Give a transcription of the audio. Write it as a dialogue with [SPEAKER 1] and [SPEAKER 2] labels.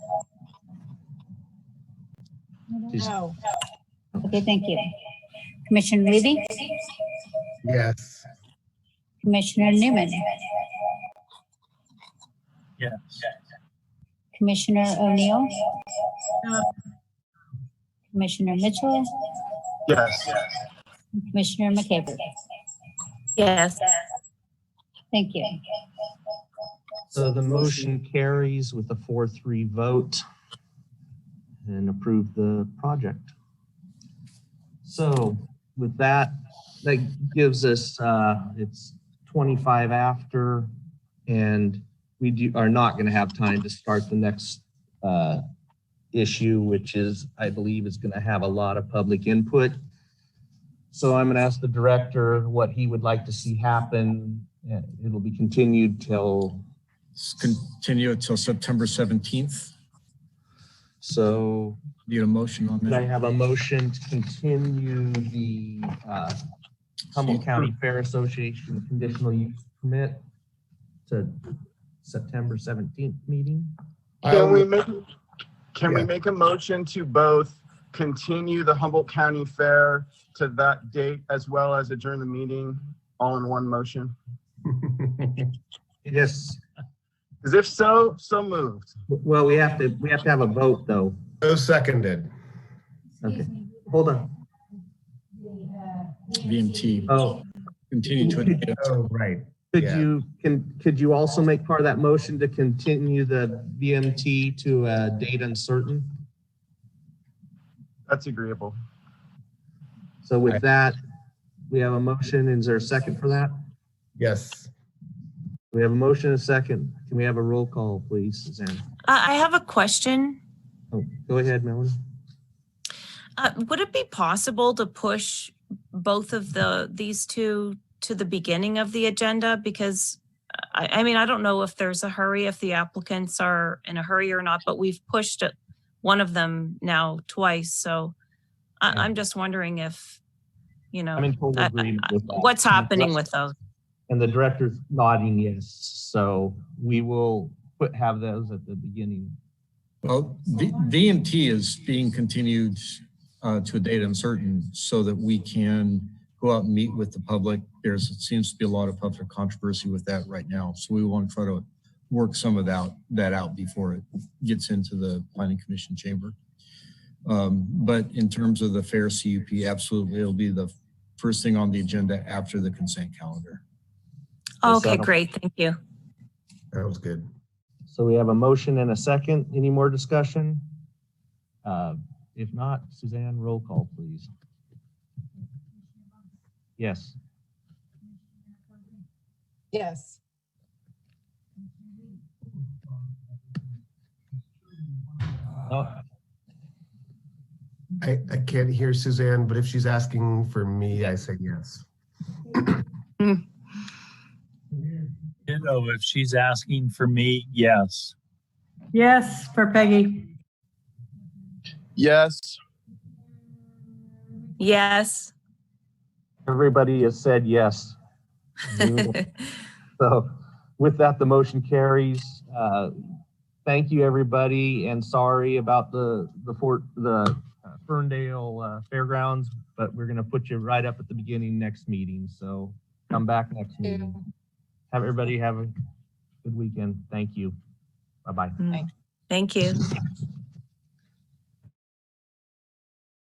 [SPEAKER 1] Just-
[SPEAKER 2] No. Okay, thank you. Commissioner Levy,
[SPEAKER 3] Yes.
[SPEAKER 2] Commissioner Newman,
[SPEAKER 1] Yes.
[SPEAKER 2] Commissioner O'Neill. Commissioner Mitchell,
[SPEAKER 3] Yes.
[SPEAKER 2] and Commissioner McCaver.
[SPEAKER 4] Yes.
[SPEAKER 2] Thank you.
[SPEAKER 1] So the motion carries with a four, three vote and approve the project. So with that, that gives us, uh, it's 25 after and we do, are not going to have time to start the next, uh, issue, which is, I believe is going to have a lot of public input. So I'm going to ask the director what he would like to see happen. Uh, It'll be continued till
[SPEAKER 5] Let's Continue until September 17th.
[SPEAKER 1] So
[SPEAKER 5] Need a motion on
[SPEAKER 1] did I
[SPEAKER 5] that?
[SPEAKER 1] have a motion to continue the uh, Humboldt County Fair Association conditional use permit to September 17th meeting?
[SPEAKER 3] I
[SPEAKER 6] Can we
[SPEAKER 3] would,
[SPEAKER 6] make, can we
[SPEAKER 3] Yeah.
[SPEAKER 6] make a motion to both continue the Humboldt County Fair to that date as well as adjourn the meeting all in one motion?
[SPEAKER 1] Yes.
[SPEAKER 6] Because if so, so moved.
[SPEAKER 1] Well, we have to, we have to have a vote, though.
[SPEAKER 3] so seconded.
[SPEAKER 1] Okay, hold on.
[SPEAKER 5] VMT,
[SPEAKER 1] Oh,
[SPEAKER 5] continue to, a-
[SPEAKER 3] Oh, right.
[SPEAKER 1] could
[SPEAKER 3] Yeah.
[SPEAKER 1] you, can, could you also make part of that motion to continue the BMT to a date uncertain?
[SPEAKER 6] That's agreeable.
[SPEAKER 1] So with that, we have a motion. Is there a second for that?
[SPEAKER 3] Yes.
[SPEAKER 1] We have a motion and a second. Can we have a roll call, please, Suzanne?
[SPEAKER 4] Uh, I have a question.
[SPEAKER 1] Oh, go ahead, Melanie.
[SPEAKER 4] Uh, would it be possible to push both of the, these two to the beginning of the agenda? Because uh, I, I mean, I don't know if there's a hurry, if the applicants are in a hurry or not, but we've pushed it, one of them now twice, so I, I'm just wondering if, you know,
[SPEAKER 1] I'm in total
[SPEAKER 4] I- I-
[SPEAKER 1] agreement with that.
[SPEAKER 4] Uh, what's happening with those?
[SPEAKER 1] And the director's nodding yes, so we will put, have those at the beginning.
[SPEAKER 5] well, V- VMT is being continued uh, to a date uncertain so that we can go out and meet with the public. There's, it seems to be a lot of public controversy with that right now. So we want to try to work some of that, that out before it gets into the planning commission chamber. Um, But in terms of the fair CUP, absolutely, it'll be the first thing on the agenda after the consent calendar.
[SPEAKER 4] Okay, great, thank you.
[SPEAKER 3] That was good.
[SPEAKER 1] So we have a motion and a second. Any more discussion? Uh, If not, Suzanne, roll call, please. Yes.
[SPEAKER 7] Yes.
[SPEAKER 1] Oh,
[SPEAKER 3] I, I can't hear Suzanne, but if she's asking for me, I say yes.
[SPEAKER 8] You know, if she's asking for me, yes.
[SPEAKER 9] Yes, for Peggy.
[SPEAKER 6] Yes.
[SPEAKER 4] Yes.
[SPEAKER 1] Everybody has said yes. We will So with that, the motion carries. Uh, Thank you, everybody, and sorry about the, the Fort, the uh, Ferndale uh, Fairgrounds, but we're gonna put you right up at the beginning next meeting, so come back next meeting. Have everybody have a good weekend. Thank you. Bye-bye.
[SPEAKER 4] Mm. Thank you.